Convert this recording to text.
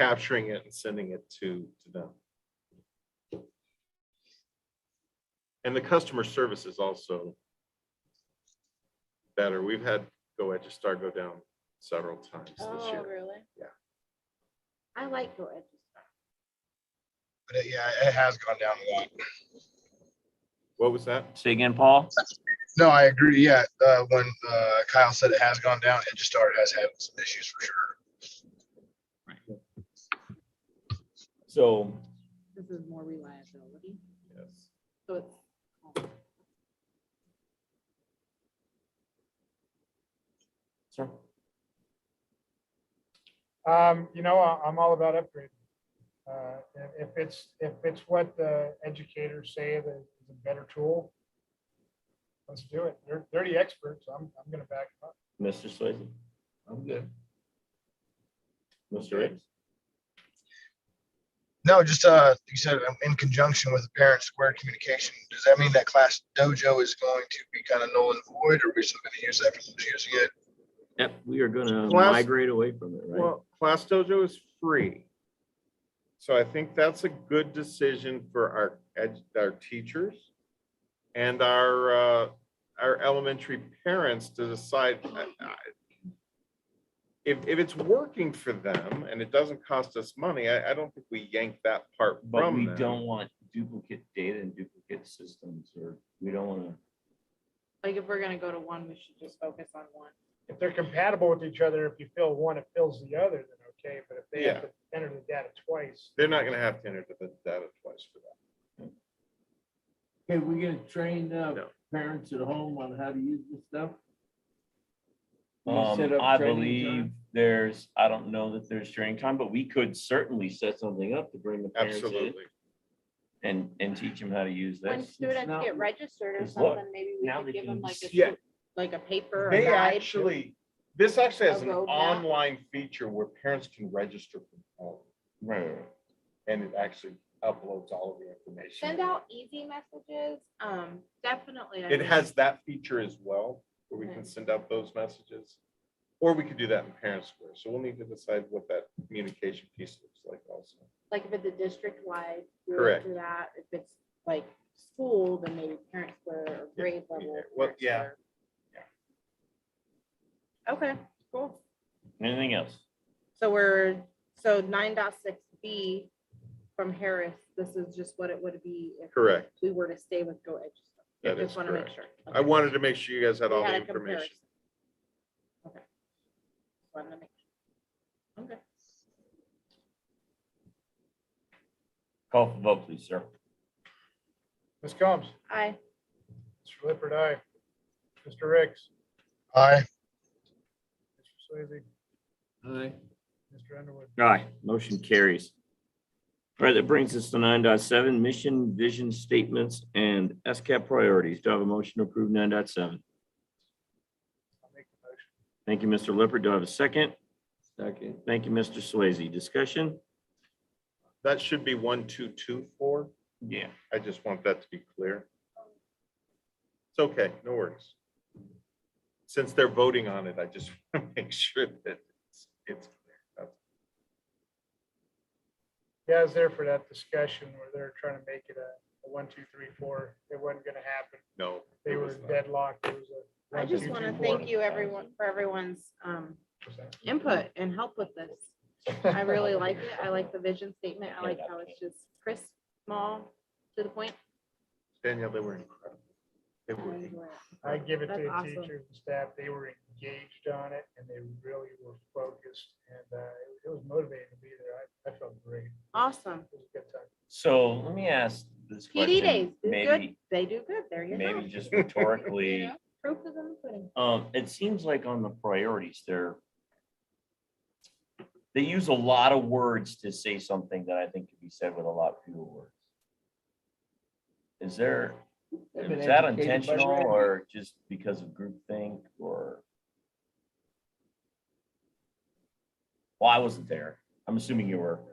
capturing it and sending it to, to them. And the customer service is also better. We've had Go Star go down several times this Oh, year. really? Yeah. I like Go Edge. But it- yeah, it has gone down a lot. What was that? Say again, Paul? No, I agree. Yeah, uh, when uh, Kyle said it has gone down, it just started has had some issues for sure. So This is more reliability. Yes. So it's. Sir? Um, you know, I- I'm all about upgrading. Uh, if- if it's, if it's what the educators say that is a better tool, let's do it. They're, they're the experts. I'm, I'm gonna back them up. Mr. Swayze? I'm good. Mr. Ricks? No, just uh, you said um, in conjunction with the parent square communication. Does that mean that class dojo is going to be kind of null and void, or are we still going to use that for those using it? Yep, we are gonna Last- migrate away from it, right? Well, Class Dojo is free. So I think that's a good decision for our, ed- our teachers and our, uh, our elementary parents to decide. I- I- If, if it's working for them and it doesn't cost us money, I, I don't think we yank that part But from we them. don't want duplicate data and duplicate systems, or we don't wanna, Like if we're gonna go to one, we should just focus on one. If they're compatible with each other, if you fill one, it fills the other, then okay, but if they have to enter the data twice. They're not gonna have to enter the data twice for that. Can we gonna train uh, No. parents at home on how to use this stuff? Can we set um, up I training believe time? there's, I don't know that there's training time, but we could certainly set something up to bring the parents in Absolutely. and, and teach them how to use When this. students now- get registered or it's what? something, maybe we Now could they give them can like a, see- Yeah. sheet- like a paper. or a They guide. actually, this actually has A an roadmap. online feature where parents can register from home. Right, right, right. and it actually uploads all of the information. Send out easy messages. Um, definitely. I It think. has that feature as well, where we can Okay. send out those messages. Or we could do that in Parent Square, so we'll need to decide what that communication piece looks like also. Like if it's a district wide. Correct. Do that. If it's like school, then maybe parent square or Yeah, grade yeah, level. well, parent yeah, square. Okay, cool. Anything else? So we're, so nine dot six B from Harris, this is just what it would be if Correct, we were to stay with Go Edge. That Just is want to make correct. sure. I wanted to make sure you guys had We all the had a information. comparison. Okay. Wanted to make sure. Okay. Call for vote, please, sir. Ms. Combs, Aye. Mr. Lippert, aye. Mr. Ricks, Aye. Mr. Swayze, Aye. Mr. Underwood. Aye. Motion carries. All right, that brings us to nine point seven mission, vision statements, and SCAP priorities. Do I have a motion to approve nine point seven? I'll make the motion. Thank you, Mr. Lippert. Do I have a second? Second. Thank you, Mr. Swayze. Discussion? That should be one, two, two, four. Yeah. I just want that to be clear. It's okay, no worries. Since they're voting on it, I just want to make sure that it's, it's clear. Yeah, I was there for that discussion where they're trying to make it a, a one, two, three, four. It wasn't gonna happen. No. They it were was not. deadlocked. It was a. I one, just two, want to three, four. thank you everyone for everyone's um, input and help with this. I really like it. I like the vision statement. I like how it's just crisp, small, to the point. Danielle, they were incredible. They were and, uh, I give it to That's the awesome. teachers and staff. They were engaged on it and they really were focused and, uh, it- it was motivating to be there. I, I felt great. It Awesome. was a good time. So let me ask this question. PD days do good. Maybe, They do good. There you go. maybe just rhetorically. You know, Proof is in the pudding. Um, it seems like on the priorities, they're they use a lot of words to say something that I think could be said with a lot fewer words. Is there, is that intentional or just because of groupthink or? Well, I wasn't there. I'm assuming you were.